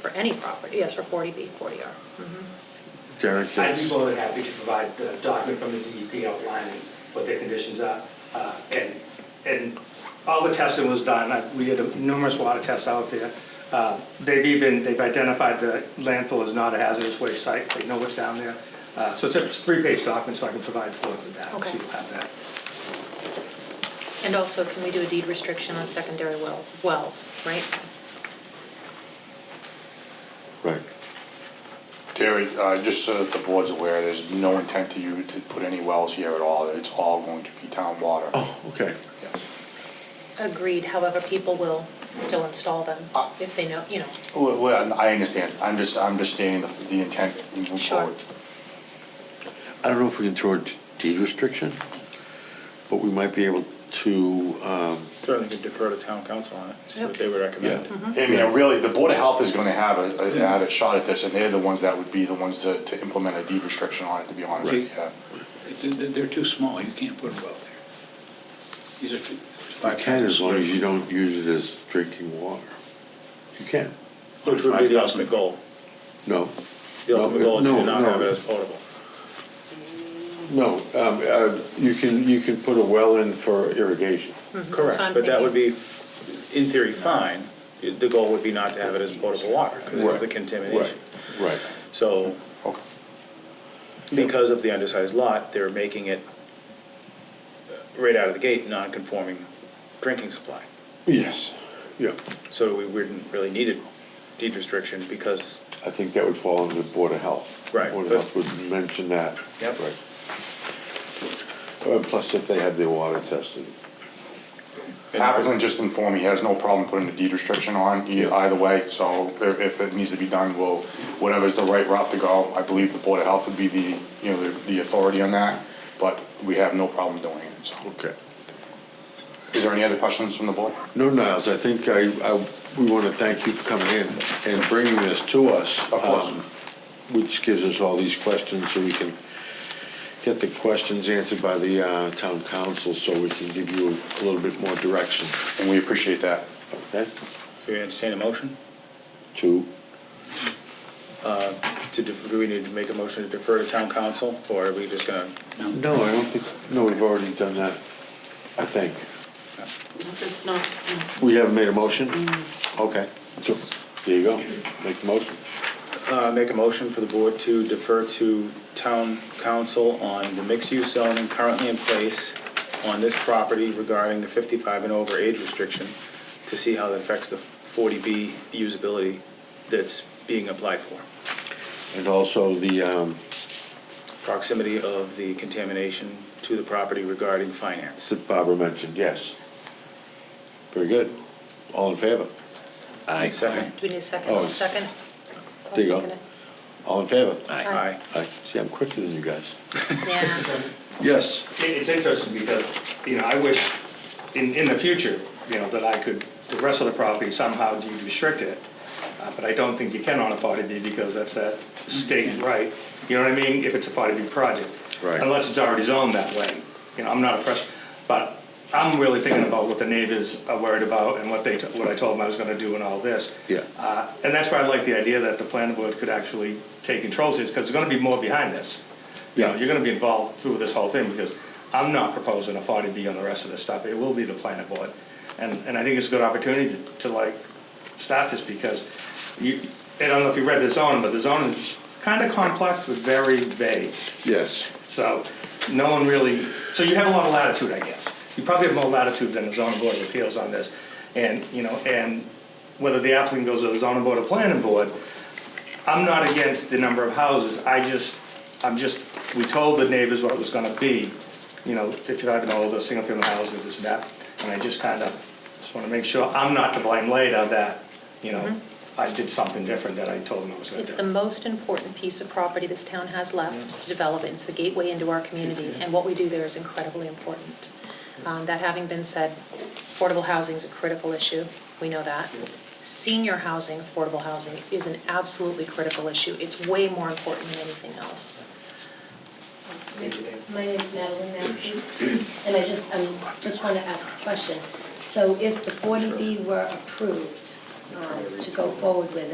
for any property, yes, for 40B, 40R. Mhm. Derek I'd be is, more than happy to provide the document from the DEP outlining what their conditions are. Uh, And, and all the testing was done, I- we did numerous water tests out there. Uh, They've even, they've identified the landfill as not a hazardous waste site, they know what's down there. Uh, So it's a it's a three-page document, so I can provide forward with that, so Okay. you'll have that. And also, can we do a deed restriction on secondary well, wells, right? right. Terry, uh, just so that the board's aware, there's no intent to you to put any wells here at all. It's all going to be town water. Oh, okay. Yes. Agreed, however, people will still install them Uh, if they know, you know. Well, well, I understand. I'm just, I'm just stating the, the intent moving Sure. forward. I don't know if we can throw a deed restriction, but we might be able to, um, Certainly could defer to town council on it, see what Yep. they would yeah. recommend. I mean, really, the Board of Health is gonna have a, a- have a shot at this, and they're the ones that would be the ones to, to implement a deed restriction on it, to be honest with you. yeah. It's- They're too small, you can't put a well there. These are fi- You five can as long as you thousand don't use it as drinking water. You can. square- Which would be the Five thousand goal. No. The No, ultimate goal is no, to not no. have it as potable. No, um, uh, you can, you can put a well in for irrigation. Correct. Mm-hmm. what I'm But that would be, thinking. in theory, fine. The goal would be not to have it as potable water because Right, of the contamination. Right, right. So, Okay. because of the undersized lot, they're making it, uh, right out of the gate, non-conforming drinking supply. Yes, yeah. So we wouldn't really need a deed restriction because, I think that would fall under Board of Health. Right, Board of but- Health would mention that. Yep. Right. Uh, Plus if they have their water tested. Applicant just informed me, he has no problem putting a deed restriction on e- either way, so i- if it needs to be done, we'll, whatever's the right route to go. I believe the Board of Health would be the, you know, the- the authority on that, but we have no problem doing it, so. Okay. Is there any other questions from the board? No, Niles, I think I, I, we want to thank you for coming in and bringing this to us. Of course. um, Which gives us all these questions so we can get the questions answered by the uh, town council so we can give you a little bit more direction, And we appreciate that. okay? so you entertain a motion? To, To, def- do we need to make a motion to defer to town council or are we just gonna? no, I don't think, no, we've already done that, I think. It's not, no. We haven't made a motion? Okay, so, there you go, make the motion. Uh, make a motion for the board to defer to town council on the mixed-use zoning currently in place on this property regarding the 55 and over age restriction to see how that affects the 40B usability that's being applied for. And also the, um, Proximity of the contamination to the property regarding finance. that Barbara mentioned, yes. Very good, all in favor? Aye. Second. Do we need a second? Oh, it's- Second? I'll There you go. second it. All in favor? Aye. I See, I'm quicker than you guys. Yeah. Yes. It- It's interesting because, you know, I wish in, in the future, you know, that I could, the rest of the property somehow deed restrict it. Uh, But I don't think you can on a 40B because that's that state right, you know what I mean, if it's a 40B project. Mm-hmm. Right. Unless it's already zoned that way, you know, I'm not a press, but I'm really thinking about what the neighbors are worried about and what they, t- what I told them I was gonna do and all this. Yeah. Uh, And that's why I like the idea that the planning board could actually take control of this, because there's gonna be more behind this. You know, Yeah. you're gonna be involved through this whole thing, because I'm not proposing a forty B on the rest of this stuff, it will be the planning board. And, and I think it's a good opportunity to, to like, start this, because you, I don't know if you read the zoning, but the zoning is kinda complex, but very vague. Yes. So, no one really, so you have a lot of latitude, I guess. You probably have more latitude than the zoning board of appeals on this. And, you know, and whether the applicant goes to the zoning board or planning board, I'm not against the number of houses, I just, I'm just, we told the neighbors what it was gonna be, you know, fifty-five and older, single-family houses, this and that, and I just kinda, just wanna make sure I'm not to blame later that, you know, I did something different that I told them I was gonna do. Mm-hmm. It's the most important piece of property this town has left to develop. it. It's the gateway into our community, and what we do there is incredibly important. Um, That having been said, affordable housing is a critical issue, we know that. Senior housing, affordable housing, is an absolutely critical issue. It's way more important than anything else. My name's Madeline Massey, and I just, um, just want to ask a question. So if the 40B were approved um, to go forward with it.